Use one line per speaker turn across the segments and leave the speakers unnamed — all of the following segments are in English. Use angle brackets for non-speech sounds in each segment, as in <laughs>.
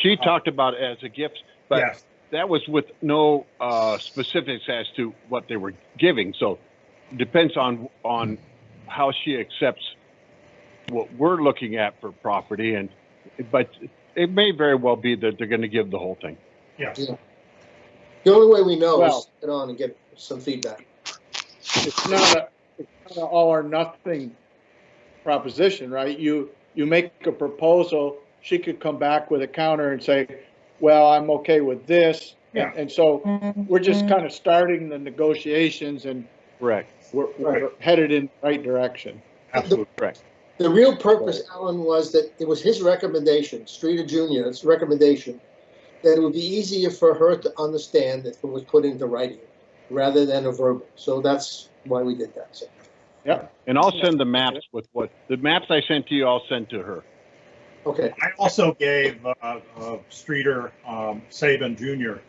She talked about it as a gift, but
Yes.
that was with no uh, specifics as to what they were giving. So depends on on how she accepts what we're looking at for property, and but it may very well be that they're going to give the whole thing.
Yes.
Yeah. The only way we know is
Well-
to get on and get some feedback.
it's not a, it's not an all or nothing proposition, right? You, you make a proposal, she could come back with a counter and say, well, I'm okay with this.
Yeah.
And so we're just kind of starting the negotiations and
Correct.
we're, we're headed in the right direction.
Absolutely.
Correct.
The real purpose, Alan, was that it was his recommendation, Streeter Junior's recommendation, that it would be easier for her to understand if it was put into writing rather than a verbal. So that's why we did that. So,
And I'll send the maps with what the maps I sent to you. I'll send to her.
okay,
I also gave uh, uh, Streeter um, Saban Jr.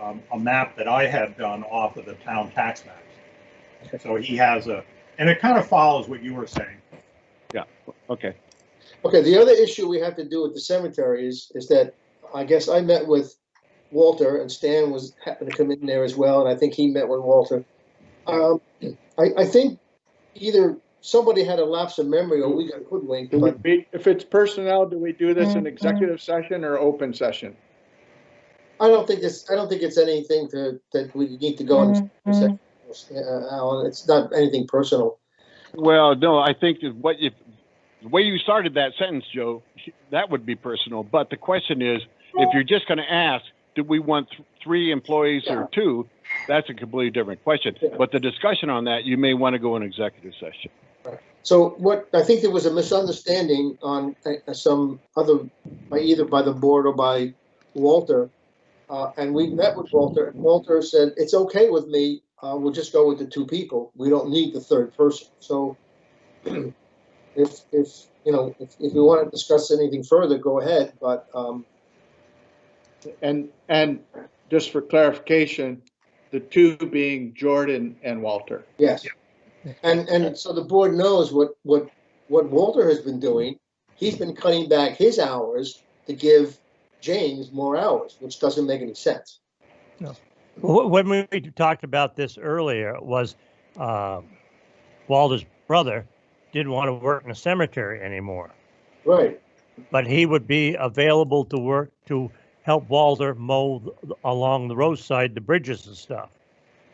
Um, a map that I had done off of the town tax maps. So he has a, and it kind of follows what you were saying.
Okay.
okay. The other issue we have to do with the cemetery is, is that I guess I met with Walter and Stan was happened to come in there as well, and I think he met with Walter. Um, I, I think either somebody had a lapse of memory or we got hoodwinked,
Do we
but
be, if it's personnel, do we do this in executive session or open session?
I don't think this, I don't think it's anything to, that we need to go into. executive session, uh, Alan, it's not anything personal.
Well, no, I think that what if the way you started that sentence, Joe, that would be personal. But the question is, if you're just going to ask, do we want th- three employees or two? That's a completely different question.
Yeah.
But the discussion on that, you may want to go in executive session.
So what, I think there was a misunderstanding on uh, some other, by either by the board or by Walter. Uh, and we met with Walter and Walter said, it's okay with me, uh, we'll just go with the two people. We don't need the third person. So <clears throat> if, if, you know, if, if we want to discuss anything further, go ahead, but, um,
And, and just for clarification, the two being Jordan and Walter.
Yes. And, and so the board knows what, what, what Walter has been doing. He's been cutting back his hours to give James more hours, which doesn't make any sense.
Wh- When we talked about this earlier, it was uh, Walter's brother didn't want to work in the cemetery anymore,
Right.
but he would be available to work to help Walter mow th- along the roadside, the bridges and stuff.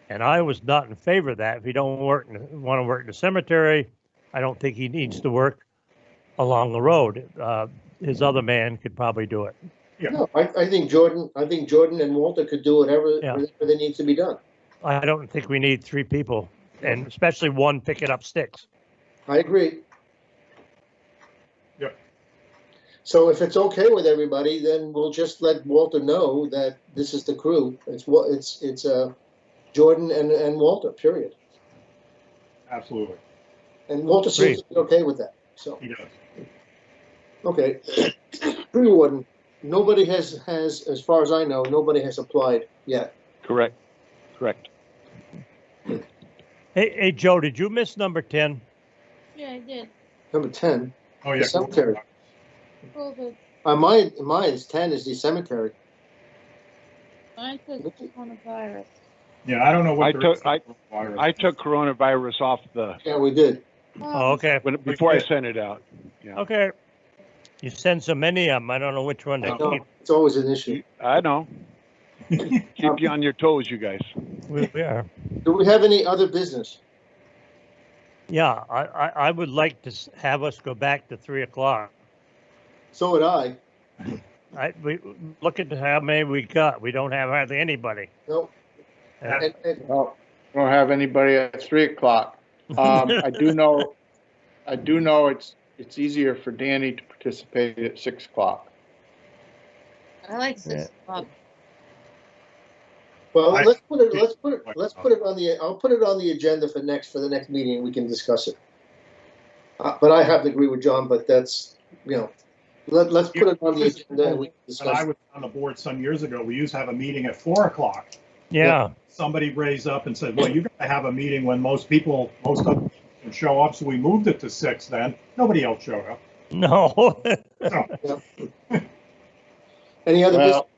And I was not in favor of that. If he don't work, want to work in the cemetery, I don't think he needs to work along the road. Uh, his other man could probably do it.
No, I, I think Jordan, I think Jordan and Walter could do whatever,
Yeah.
whatever that needs to be done.
I don't think we need three people, and especially one picking up sticks.
I agree.
Yep.
So if it's okay with everybody, then we'll just let Walter know that this is the crew. It's what, it's, it's, uh, Jordan and, and Walter, period.
Absolutely.
And Walter seems to be okay with that, so.
He does.
Okay. <clears throat> Tree warden, nobody has, has, as far as I know, nobody has applied yet.
Correct. Correct.
Hey, hey, Joe, did you miss number 10?
Yeah, I did.
Number ten,
Oh, yeah.
The cemetery.
Over.
uh, mine, mine's ten is the cemetery.
Mine says coronavirus.
Yeah, I don't know
I
what.
took- I- I took coronavirus off the
Yeah, we did.
Um,
Oh, okay.
when, before I sent it out.
Okay. You send so many of them. I don't know which one
I
to
know,
keep.
it's always an issue.
I know. Keep you on your toes, you guys.
We, we are.
Do we have any other business?
Yeah, I, I, I would like to s- have us go back to three o'clock.
So would I.
I, we, look at how many we got. We don't have hardly anybody.
No.
Uh,
And, and,
Well, we don't have anybody at three o'clock. Um, I do know, I do know it's, it's easier for Danny to participate at six o'clock.
I like six o'clock.
well,
I-
let's put it,
<laughs>
let's put it, let's put it on the, I'll put it on the agenda for next, for the next meeting, we can discuss it. Uh, but I have to agree with John, but that's, you know, let, let's put it on the agenda and we can
When I
discuss it.
was on the board some years ago, we used to have a meeting at four o'clock.
Yeah, <laughs>
Somebody raised up and said, well, you're gonna have a meeting when most people, most of them can show up, so we moved it to six then. Nobody else showed up.
no.
Any other
Well,
business?